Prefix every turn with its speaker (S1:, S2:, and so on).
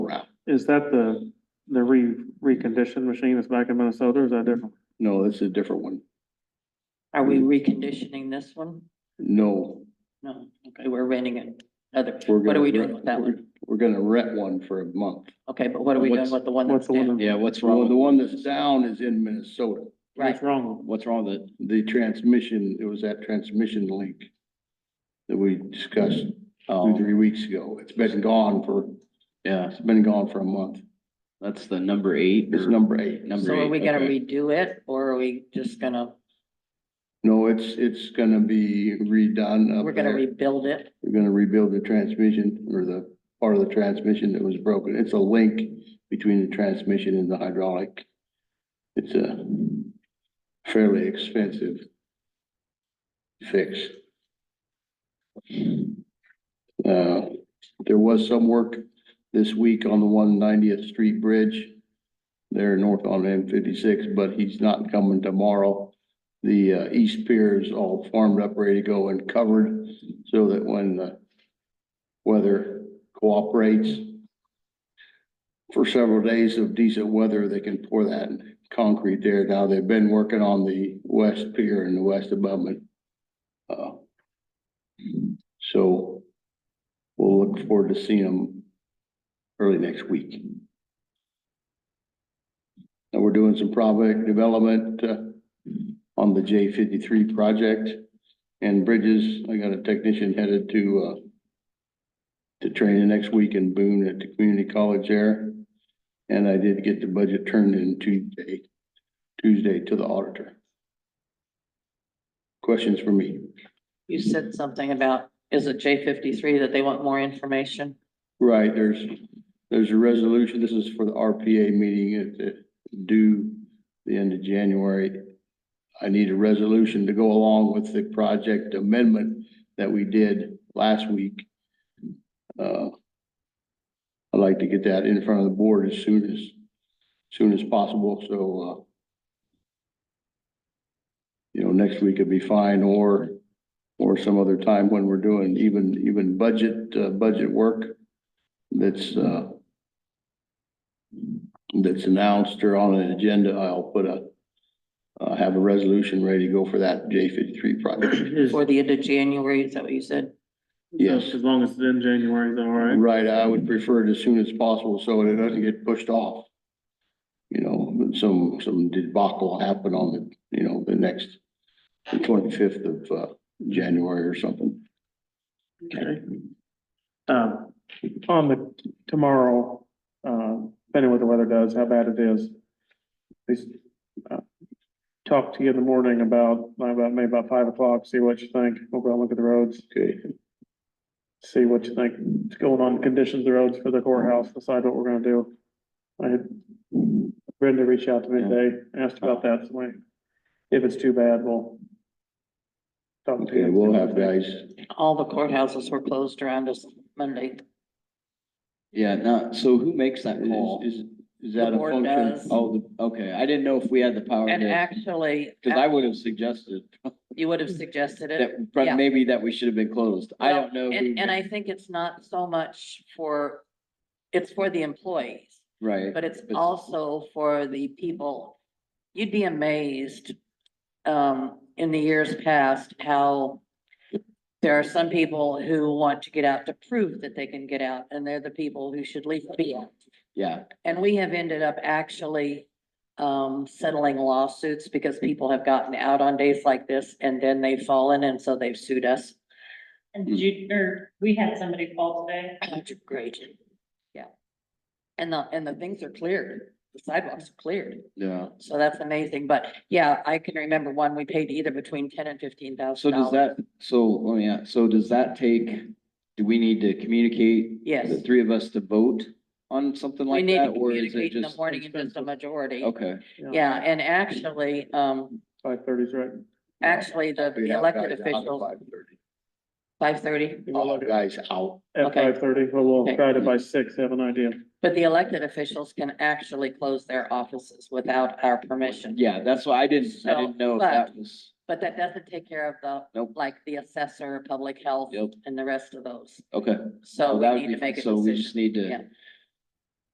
S1: Is that the, the re, reconditioned machine that's back in Minnesota, or is that different?
S2: No, that's a different one.
S3: Are we reconditioning this one?
S2: No.
S3: No, okay, we're renting another.
S2: we're
S3: What
S2: gonna
S3: are we doing
S2: rent-
S3: with that
S2: we're-
S3: one?
S2: We're gonna rent one for a month.
S3: Okay, but what are we doing
S4: What's-
S3: with the one
S1: What's
S3: that's
S1: the one
S3: down?
S1: that-
S4: Yeah, what's
S2: Well, the
S4: wrong?
S2: one that's down is in Minnesota.
S3: Right,
S1: What's wrong with it?
S4: What's wrong with it?
S2: The transmission, it was that transmission leak that we discussed two,
S4: Oh,
S2: three weeks ago. It's been gone for,
S4: yeah,
S2: it's been gone for a month.
S4: that's the number eight.
S2: It's
S4: or-
S2: number eight.
S4: Number
S3: so are
S4: eight,
S3: we gonna
S4: okay.
S3: redo it or are we just gonna,
S2: No, it's, it's gonna be redone up
S3: we're gonna
S2: there.
S3: rebuild it?
S2: We're gonna rebuild the transmission or the part of the transmission that was broken. It's a link between the transmission and the hydraulic. It's a fairly expensive fix. Uh, there was some work this week on the one ninetieth street bridge there north on M fifty-six, but he's not coming tomorrow. The uh, east pier is all formed up, ready to go and covered so that when the weather cooperates for several days of decent weather, they can pour that concrete there. Now, they've been working on the west pier and the west abutment. Uh, So we'll look forward to seeing them early next week. And we're doing some project development uh, on the J fifty-three project. And Bridges, I got a technician headed to, uh, to training next week in Boone at the community college there. And I did get the budget turned in Tuesday, Tuesday to the auditor. Questions for me?
S3: You said something about, is it J fifty-three that they want more information?
S2: Right, there's, there's a resolution, this is for the RPA meeting at the, due the end of January. I need a resolution to go along with the project amendment that we did last week. Uh, I'd like to get that in front of the board as soon as, soon as possible, so, uh, you know, next week would be fine, or, or some other time when we're doing even, even budget, uh, budget work that's, uh, that's announced or on an agenda, I'll put a, uh, have a resolution ready to go for that J fifty-three project.
S1: Is-
S3: For the end of January, is that what you said?
S2: Yes.
S1: As long as it's in January, is that all right?
S2: Right, I would prefer it as soon as possible so it doesn't get pushed off. You know, but some, some debacle happen on the, you know, the next twenty-fifth of, uh, January or something.
S1: Okay. Um, on the tomorrow, uh, depending what the weather does, how bad it is. Please, uh, talk to you in the morning about, uh, about maybe about five o'clock, see what you think, we'll go look at the roads.
S2: Okay,
S1: see what you think is going on, conditions of the roads for the courthouse, decide what we're gonna do. I had Brenda reached out to me today, asked about that, so we- if it's too bad, we'll talk to you.
S2: okay, we'll have guys,
S3: All the courthouses were closed around us Monday.
S4: Yeah, no, so who makes that call?
S2: is, is, is that
S3: The
S2: a
S3: board
S2: function?
S3: does.
S4: Oh, the- okay, I didn't know if we had the power
S3: And
S4: to,
S3: actually, uh,
S4: because Oh, I would have suggested
S3: you would have suggested it.
S4: that, but
S3: yeah.
S4: maybe that we should have been closed. I
S3: Well,
S4: don't know. who
S3: And, and I
S4: makes-
S3: think it's not so much for, it's for the employees,
S4: Right.
S3: but it's
S4: But-
S3: also for the people. You'd be amazed, um, in the years past, how there are some people who want to get out to prove that they can get out, and they're the people who should least be out.
S4: Yeah,
S3: And we have ended up actually um settling lawsuits because people have gotten out on days like this and then they've fallen and so they've sued us.
S5: And did you, or we had somebody call today,
S3: Great. Yeah. And the, and the things are cleared, the sidewalks are cleared,
S4: yeah.
S3: so that's amazing, but yeah, I can remember one, we paid either between ten and fifteen
S4: So
S3: thousand
S4: does
S3: dollars.
S4: that, so, let me ask, so does that take, do we need to communicate? The
S3: Yes,
S4: three of us to vote on something
S3: we
S4: like
S3: need to
S4: that, or is it
S3: communicate in the
S4: just?
S3: morning and just a majority.
S4: Okay,
S3: Yeah, and actually, um,
S1: Five thirty's right.
S3: actually, the
S2: We
S3: the
S2: have
S3: elected
S2: guys out at
S3: officials,
S2: 5:30.
S3: five thirty.
S1: We'll
S2: All
S1: look
S2: the
S1: at-
S2: guys out.
S1: At
S3: Okay.
S1: five thirty, but we'll
S3: Okay.
S1: try to by six, have an idea.
S3: But the elected officials can actually close their offices without our permission.
S4: yeah, that's why I didn't, I
S3: So,
S4: didn't know if
S3: but-
S4: that was,
S3: But that doesn't take care of the.
S4: Nope.
S3: Like the assessor, public health
S4: Yep.
S3: and the rest of those.
S4: okay.
S3: So
S4: Well, that
S3: we
S4: would
S3: need
S4: be
S3: to
S4: fine.
S3: make a
S4: So we just
S3: decision.
S4: need
S3: Yeah.
S4: to